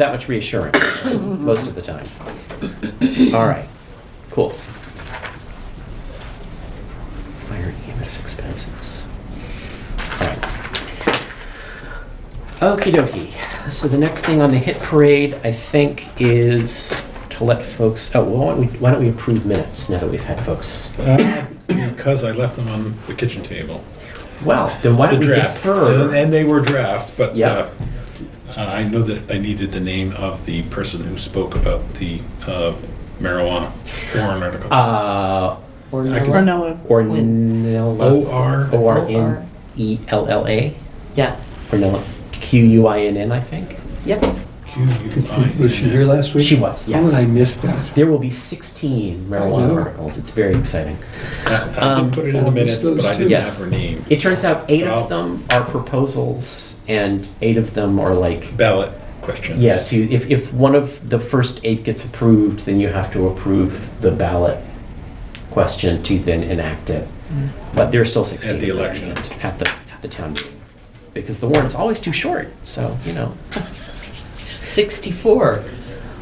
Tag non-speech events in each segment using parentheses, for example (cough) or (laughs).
that much reassurance Mm-hmm. most of the time. All right, cool. Fire EMS expenses. All right. Okie dokie. So the next thing on the hit parade, I think, is to let folks, oh, well, why don't we, why don't we approve minutes now that we've had folks? Uh, Because I left them on the kitchen table, Well, then why the don't we draft. And defer? and they were draft, but Yeah. uh, uh, I know that I needed the name of the person who spoke about the uh, marijuana warrant articles. Uh, Or I can- Nella. O Ornella, R. E O-R-N-E-L-L-A, Yeah. Ornella, Q-U-I-N-N, I think. Yep. Q U I. Was she here last week? She was, How did I yes. miss that? There will be 16 marijuana know. articles. It's very exciting. I didn't put it in the Um, minutes, but I didn't have Yes. her name. It turns out eight Wow. of them are proposals and eight of them are like Ballot questions. Yeah, to, if, if one of the first eight gets approved, then you have to approve the ballot question to then enact it. But there are still 16. Mm. At the election. At the, at the town meeting. Because the warrant's always too short, so, you know. 64.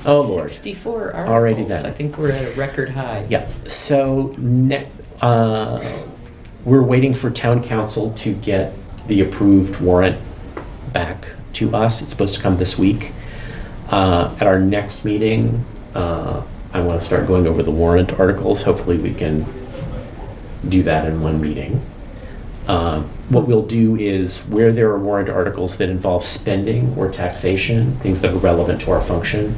Oh, Lord. 64 articles. Already done. I think we're at a record high. Yeah, so ne- uh, we're waiting for town council to get the approved warrant back to us. It's supposed to come this week. Uh, At our next meeting, uh, I want to start going over the warrant articles. Hopefully, we can do that in one meeting. Um, What we'll do is where there are warrant articles that involve spending or taxation, things that are relevant to our function,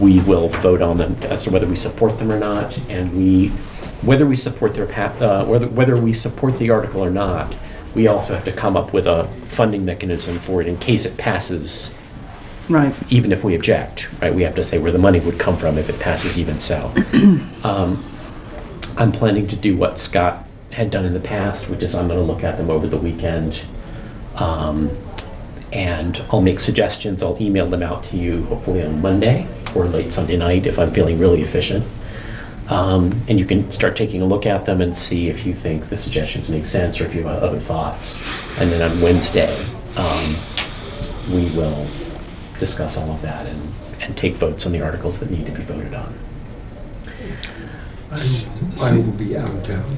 we will vote on them as to whether we support them or not. And we, whether we support their, pa- uh, whether, whether we support the article or not, we also have to come up with a funding mechanism for it in case it passes, Right. even if we object, right? We have to say where the money would come from if it passes even so. Um, I'm planning to do what Scott had done in the past, which is I'm going to look at them over the weekend. Um, and I'll make suggestions. I'll email them out to you hopefully on Monday or late Sunday night if I'm feeling really efficient. Um, and you can start taking a look at them and see if you think the suggestions make sense or if you have other thoughts. And then on Wednesday, um, we will discuss all of that and, and take votes on the articles that need to be voted on. I will be out of town.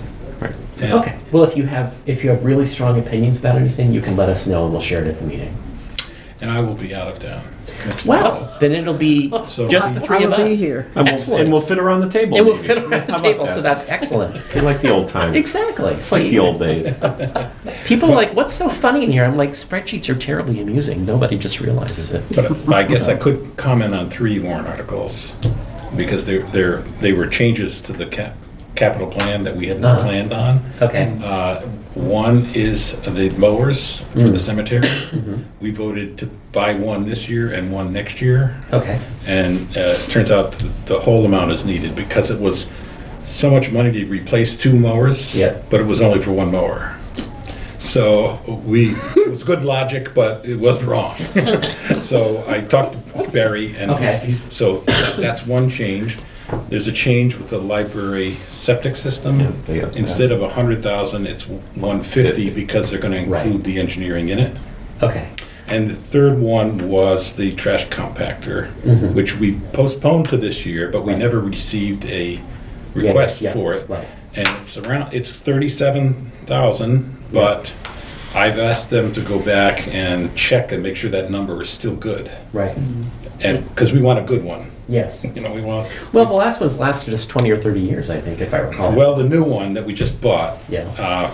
And- Okay. Well, if you have if you have really strong opinions about anything, you can let us know and we'll share it at the meeting. And I will be out of town. next week. Then it'll be So- just the three I of will us. be here. And we'll, Excellent. And we'll fit around the table. It will maybe. fit around How the about table, so that? that's (laughs) excellent. Be like the old times. Exactly. It's like the old (laughs) days. People are like, what's so funny in here? I'm like, spreadsheets are terribly amusing. Nobody just realizes it. But I guess I could comment on three warrant articles, because they're, they're, they were changes to the cap, capital plan that we hadn't Uh-huh. planned on. Okay. Uh, One is the mowers for the cemetery. We voted to buy one this year and one next year, Okay. and uh, it turns out th- the whole amount is needed, because it was so much money to replace two mowers. Yeah. But it was only for one mower. So we, it was good logic, but it was wrong. (laughs) So I talked to Barry, and he's- Okay. he's, so that's one change. There's a change with the library septic Yeah, system. they got that. Instead of a hundred thousand, it's one fifty, because they're gonna Right. include the engineering in it. Okay. And the third one was the trash compactor, Mm-hmm. which we postponed to this year, but we never received a request yeah, for it. right. And it's around, it's thirty-seven thousand, but I've asked them to go back and check and make sure that number is still good. Right. Mm. And, because we want a good one, Yes. you know, we want, Well, the last one's lasted us 20 or 30 years, I think, if I recall. well, the new one that we just bought. Yeah. Uh,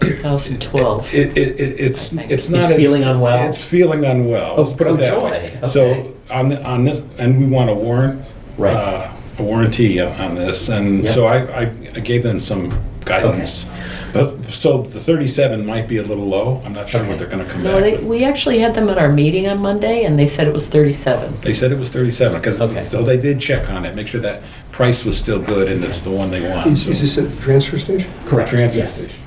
2012. It, it, it- it's, it's not. It's as- feeling unwell? It's feeling unwell, let's put oh, it that joy. way. Okay. So on, the- on this, and we want a warrant. Right. uh, A warranty on- on this, and Yeah. so I, I I gave them some guidance. But, so the thirty-seven might be a little low, I'm not sure Okay. what they're gonna come No, back they, with. we actually had them at our meeting on Monday and they said it was 37. They said it was thirty-seven, because, Okay. so they did check on it, make sure that price was still good and it's the one they want. Is so- is this at the transfer station? correct. Transfer Yes. station.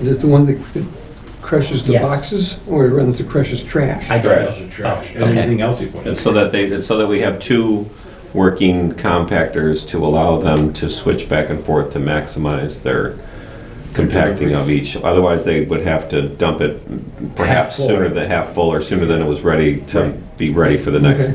Is it the one that that crushes the Yes. boxes or it runs that crushes trash? I Trash, don't know. Trash, Oh, okay. anything else you put in. And so that they, so that we have two working compactors to allow them to switch back and forth to maximize their compacting of each. Otherwise, they would have to dump it perhaps full. sooner than half full or sooner than it was ready to be ready for the next Okay.